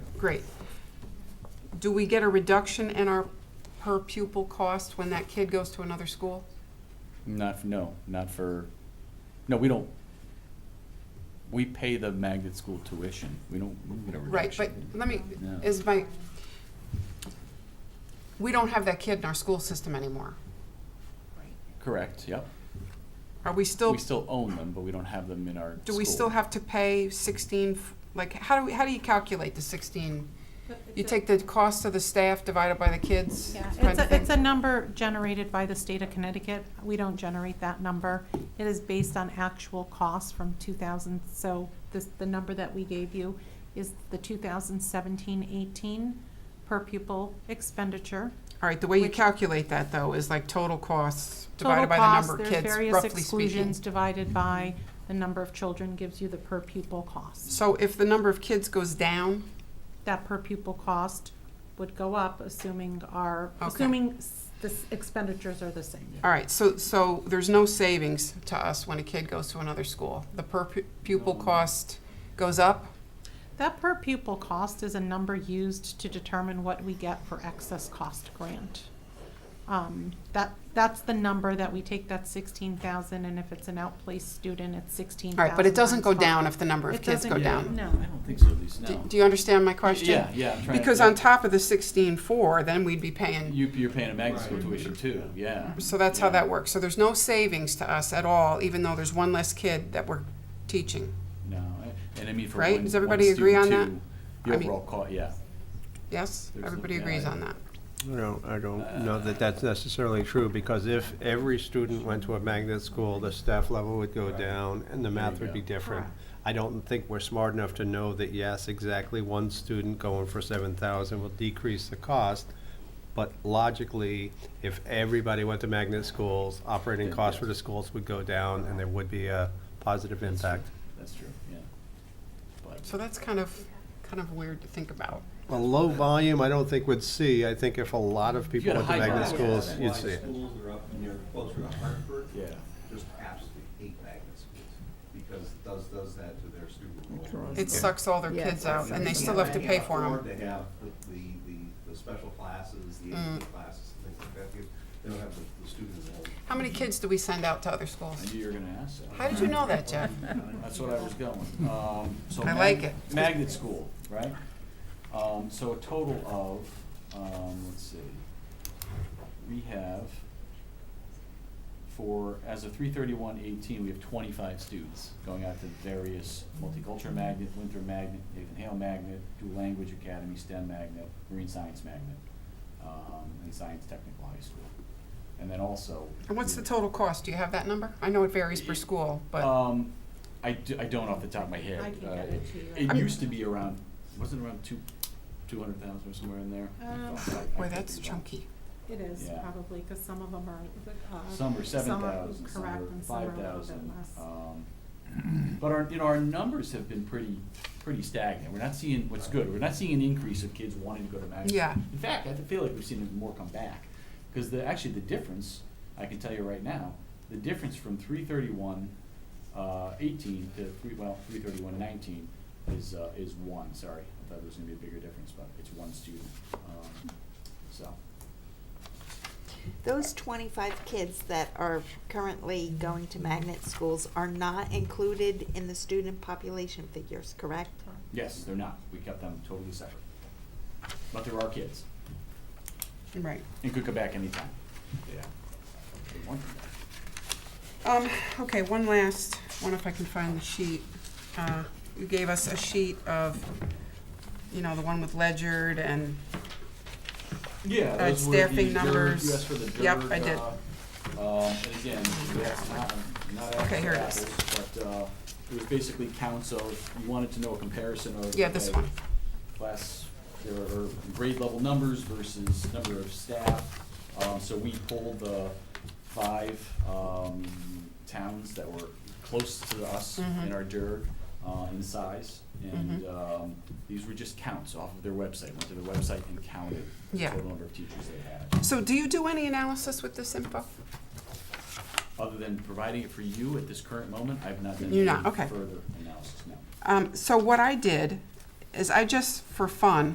Great. Do we get a reduction in our per pupil cost when that kid goes to another school? Not, f- no, not for, no, we don't, we pay the magnet school tuition, we don't. we don't- Right, but let me, No. is my, we don't have that kid in our school system anymore. Correct, yep. Are we still, We still own them, but we don't have them in our do we still school. have to pay sixteen, f- like, how do, we? how do you calculate the sixteen? But You it's a- take the cost of the staff divided by the kids? Yeah, kind it's of a, thing? it's a number generated by the state of Connecticut. We don't generate that number. It is based on actual costs from two thousand, so this, the number that we gave you is the 2017-18 per pupil expenditure. All right, the way you Which- calculate that, though, is like total costs Total divided by the cost, number of there's kids, various roughly speaking. exclusions divided by the number of children gives you the per pupil cost. So if the number of kids goes down, That per pupil cost would go up assuming our, Okay. assuming s- the s- expenditures are the same. all right, so, so there's no savings to us when a kid goes to another school. The per pu- pupil No. cost goes up? That per pupil cost is a number used to determine what we get for excess cost grant. Um, that, that's the number that we take, that's sixteen thousand, and if it's an outplaced student, it's sixteen All thousand. right, but it doesn't go down if the number of It kids go doesn't- down. No. I don't think so, at least Do now. do you understand my question? Yeah, yeah. I'm trying to- Because on top of the sixteen-four, then we'd be paying, You, you're paying a magnet school tuition too, yeah. so that's how Yeah. that works. So there's no savings to us at all, even though there's one less kid that we're teaching. No, I- and I mean for one, Right? one Does everybody student agree on that? too, I The mean- overall cost, yeah. Yes? There's no- Everybody yeah, agrees I- on that? No, I don't know that that's necessarily true, because if every student went to a magnet school, the staff level would go down and the math There you would be go. different. Correct. I don't think we're smart enough to know that, yes, exactly one student going for seven thousand will decrease the cost. But logically, if everybody went to magnet schools, operating Yeah, costs yes. for the schools would go down and there would be a positive That's true. impact. That's true, yeah. But So that's kind of, kind of weird to think about. A low volume, I don't think would see. I think if a lot of people had a went to high magnet volume, schools, that's you'd why see it. Schools are up and they're closer to Hartford. Yeah. Just absolutely hate magnet schools because does, does that to their student enrollment. It sucks all their Yeah. kids out, and they still have to pay for They them. Mm. can't afford to have the, the, the- the special classes, the AP classes, things like that. They- They don't have the, the student enrollment. How many kids do we send out to other schools? I knew you were gonna ask that. How did you know that, Jeff? That's what I was going. Um, so I mag- like it. Magnet school, right? Um, so a total of, um, let's see, we have for, as of three thirty-one eighteen, we have twenty-five students going out to various multicultural magnet, Winter magnet, Nathan Hale magnet, dual language academy, STEM magnet, marine science magnet, um, and science technical high school. And then also. And what's the we- total cost? Do you have that number? I know it varies per school, but um, I, d- I don't off the top of my head. I can Uh, get it to you. It I'm- used to be around, wasn't it around two, two hundred thousand or somewhere in there? Um, I- I boy, could that's be wrong. chunky. It is Yeah. probably, because some of them are, uh. Some are seven are thousand, some correct, are and some are a five little bit thousand. uh, um, less. But our, you know, our numbers have been pretty, pretty stagnant. We're not seeing, what's good, we're not seeing an increase of kids wanting to go to Madison. Yeah. In fact, I feel like we've seen more come back, because the, actually, the difference, I can tell you right now, the difference from three thirty-one, uh, eighteen to three, well, three thirty-one nineteen is, uh, is one, sorry. I thought there was gonna be a bigger difference, but it's one student, um, so. Those twenty-five kids that are currently going to magnet schools are not included in the student population figures, correct? Yes, they're not. We kept them totally separate. But they're our kids Right. and could come back anytime. Yeah. They want them back. Um, okay, one last, one if I can find the sheet. Uh, You gave us a sheet of, you know, the one with ledgered and, Yeah, Uh, those were the staffing DIRG- numbers. You asked for the Yep, DIRG, I did. uh, Um, and again, that's not, not apples Okay, here to it is. apples, but, uh, it was basically counts of, you wanted to know a comparison of. yeah, this okay, one. class or or grade level numbers versus number of staff. Um, so we pulled the five, um, towns that were close to us in Mhm. our DIRG, uh, in size. And, Mm-hmm. um, these were just counts off of their website, went to their website and counted the Yeah. total number of teachers they had. So do you do any analysis with this info? Other than providing it for you at this current moment, I've not done You're any not- okay. further analysis, no. Um, so what I did is I just, for fun,